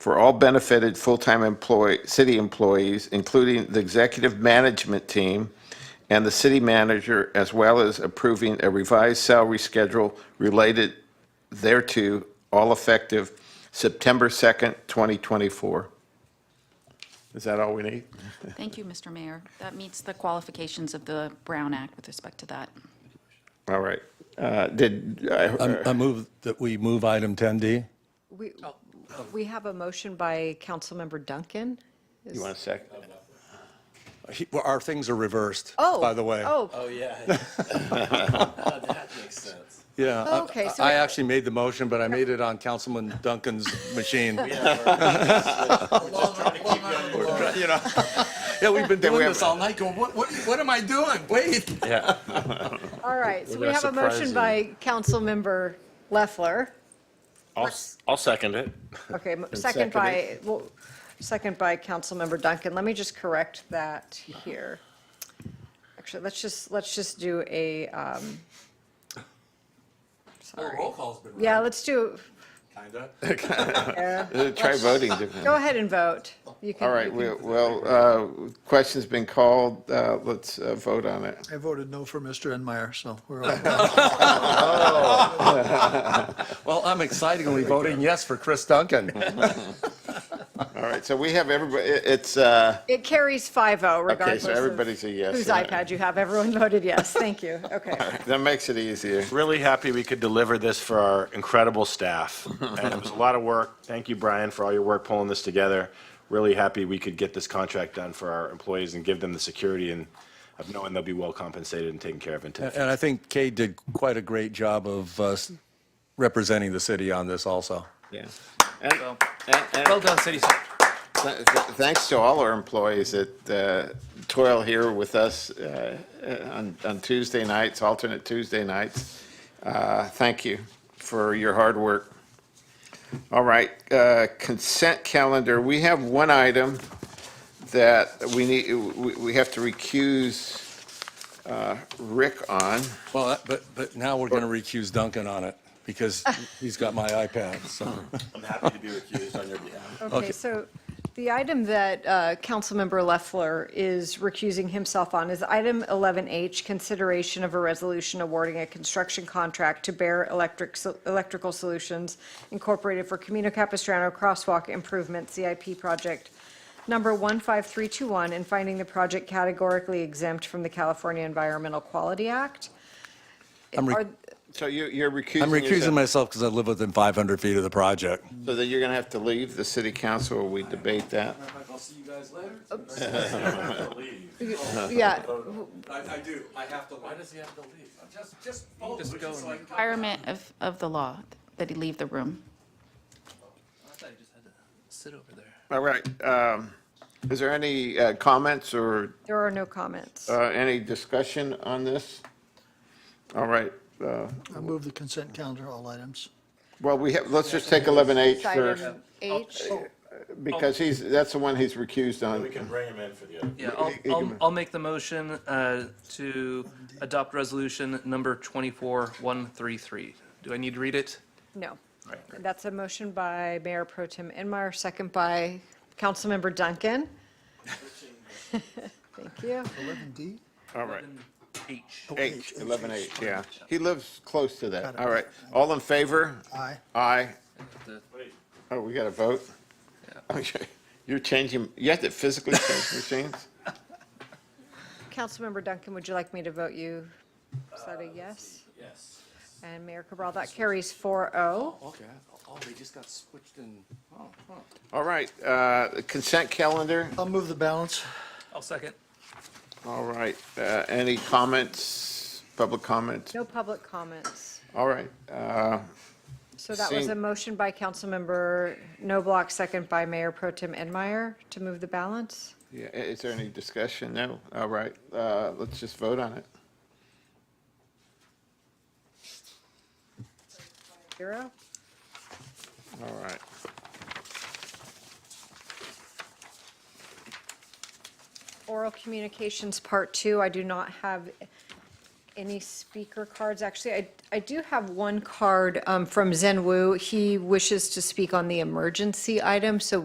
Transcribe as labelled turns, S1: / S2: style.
S1: for all benefited full-time employee, city employees, including the executive management team and the city manager, as well as approving a revised salary schedule related thereto, all effective September 2nd, 2024. Is that all we need?
S2: Thank you, Mr. Mayor. That meets the qualifications of the Brown Act with respect to that.
S1: All right. Uh, Did,
S3: I
S1: I-
S3: I move that we move item 10D.
S4: We,
S3: Oh.
S4: we have a motion by Councilmember Duncan.
S1: you want a second?
S3: He- well, Our things are reversed,
S4: Oh.
S3: by the way.
S4: Oh,
S5: Oh, yeah. That makes sense.
S3: Yeah, I-
S4: Okay, so-
S3: I actually made the motion, but I made it on Councilman Duncan's machine. You know, yeah, we've been doing
S1: have-
S3: this all night, going, what, what, what am I doing? Wait.
S5: Yeah.
S4: all right. So we
S5: We're
S4: have
S5: gonna
S4: a motion
S5: surprise
S4: by Councilmember Leffler.
S5: I'll, s- I'll second it.
S4: Okay, mo- second by, well, second by Councilmember Duncan. Let me just correct that here. Actually, let's just, let's just do a, um, sorry.
S3: Oh, call's been
S4: Yeah, let's do,
S3: kinda.
S4: yeah.
S1: Uh, Try voting differently.
S4: Go ahead and vote. You can-
S1: All right,
S4: you can-
S1: we- well, uh, question's been called, Uh, let's uh, vote on it.
S6: I voted no for Mr. Enmeyer, so we're all.
S3: Well, I'm excitingly voting yes for Chris Duncan.
S1: All right, so we have everybody, it- it's, uh,
S4: It carries 5-0
S1: okay,
S4: regardless
S1: so
S4: of
S1: everybody's a yes.
S4: whose
S1: in it.
S4: iPad you have. Everyone voted yes. Thank you. Okay.
S1: That makes it easier.
S5: Really happy we could deliver this for our incredible staff. And it was a lot of work. Thank you, Brian, for all your work pulling this together. Really happy we could get this contract done for our employees and give them the security and of knowing they'll be well compensated and taken care of in
S3: And I think Kay did quite a great job of uh, s- representing the city on this also.
S1: Yeah. And- and- and
S7: Well done, City Center.
S1: th- th- Thanks to all our employees that uh, toil here with us uh, uh, on on Tuesday nights, alternate Tuesday nights. Uh, Thank you for your hard work. All right, uh, consent calendar. We have one item that we need, we we have to recuse uh, Rick on.
S3: Well, that- but, but now we're going to recuse Duncan on it because he's got my iPad, so.
S5: I'm happy to be recused on your behalf.
S4: Okay, so the item that uh, Councilmember Leffler is recusing himself on is item 11H, consideration of a resolution awarding a construction contract to Bear Electric, Electrical Solutions Incorporated for Camino Capistrano Crosswalk Improvement CIP Project number 15321 and finding the project categorically exempt from the California Environmental Quality Act.
S3: I'm re-
S4: Are-
S1: So you- you're recusing
S3: I'm recusing
S1: yourself.
S3: myself because I live within 500 feet of the project.
S1: So that you're going to have to leave the city council, or we debate that?
S3: I'll see you guys later.
S4: Yeah,
S3: I do, I have to. Why does he have to leave? Just, just vote.
S7: Just go and-
S2: Requirement of, of the law that he leave the room.
S7: I thought you just had to sit over there.
S1: All right. um, Is there any uh, comments or
S4: there are no comments.
S1: uh, any discussion on this? All right. uh,
S6: I move the consent calendar, all items.
S1: Well, we have, let's just take 11H first,
S4: Item H.
S1: because he's, that's the one he's recused
S5: We
S1: on.
S5: can bring him in for the other.
S7: Yeah, I'll, I'll, I'll make the motion uh, to adopt resolution number 24133. Do I need to read it?
S4: No. That's a motion by Mayor Pro Tem Enmeyer, second by Councilmember Duncan. Thank you.
S6: 11D?
S1: All right.
S7: H.
S1: H, 11H, yeah. He lives close to that. All right. All in favor?
S6: Aye.
S1: Aye.
S7: The-
S1: Oh, we got to vote? Okay. You're changing, you have to physically change machines?
S4: Councilmember Duncan, would you like me to vote you? Is that a yes? Yes. And Mayor Cabral, that carries 4-0.
S3: Okay, oh, they just got switched in.
S1: All right. uh, Consent calendar.
S6: I'll move the balance.
S7: I'll second.
S1: All right, uh, any comments, public comments?
S4: No public comments.
S1: All right, uh,
S4: So that was
S1: Seeing-
S4: a motion by Councilmember Noblock, second by Mayor Pro Tem Enmeyer to move the balance.
S1: yeah, i- is there any discussion? No, all right, uh, let's just vote on it.
S4: Zero.
S1: All right.
S4: Oral communications, part two, I do not have any speaker cards. Actually, I, I do have one card um, from Zen Wu. He wishes to speak on the emergency item, so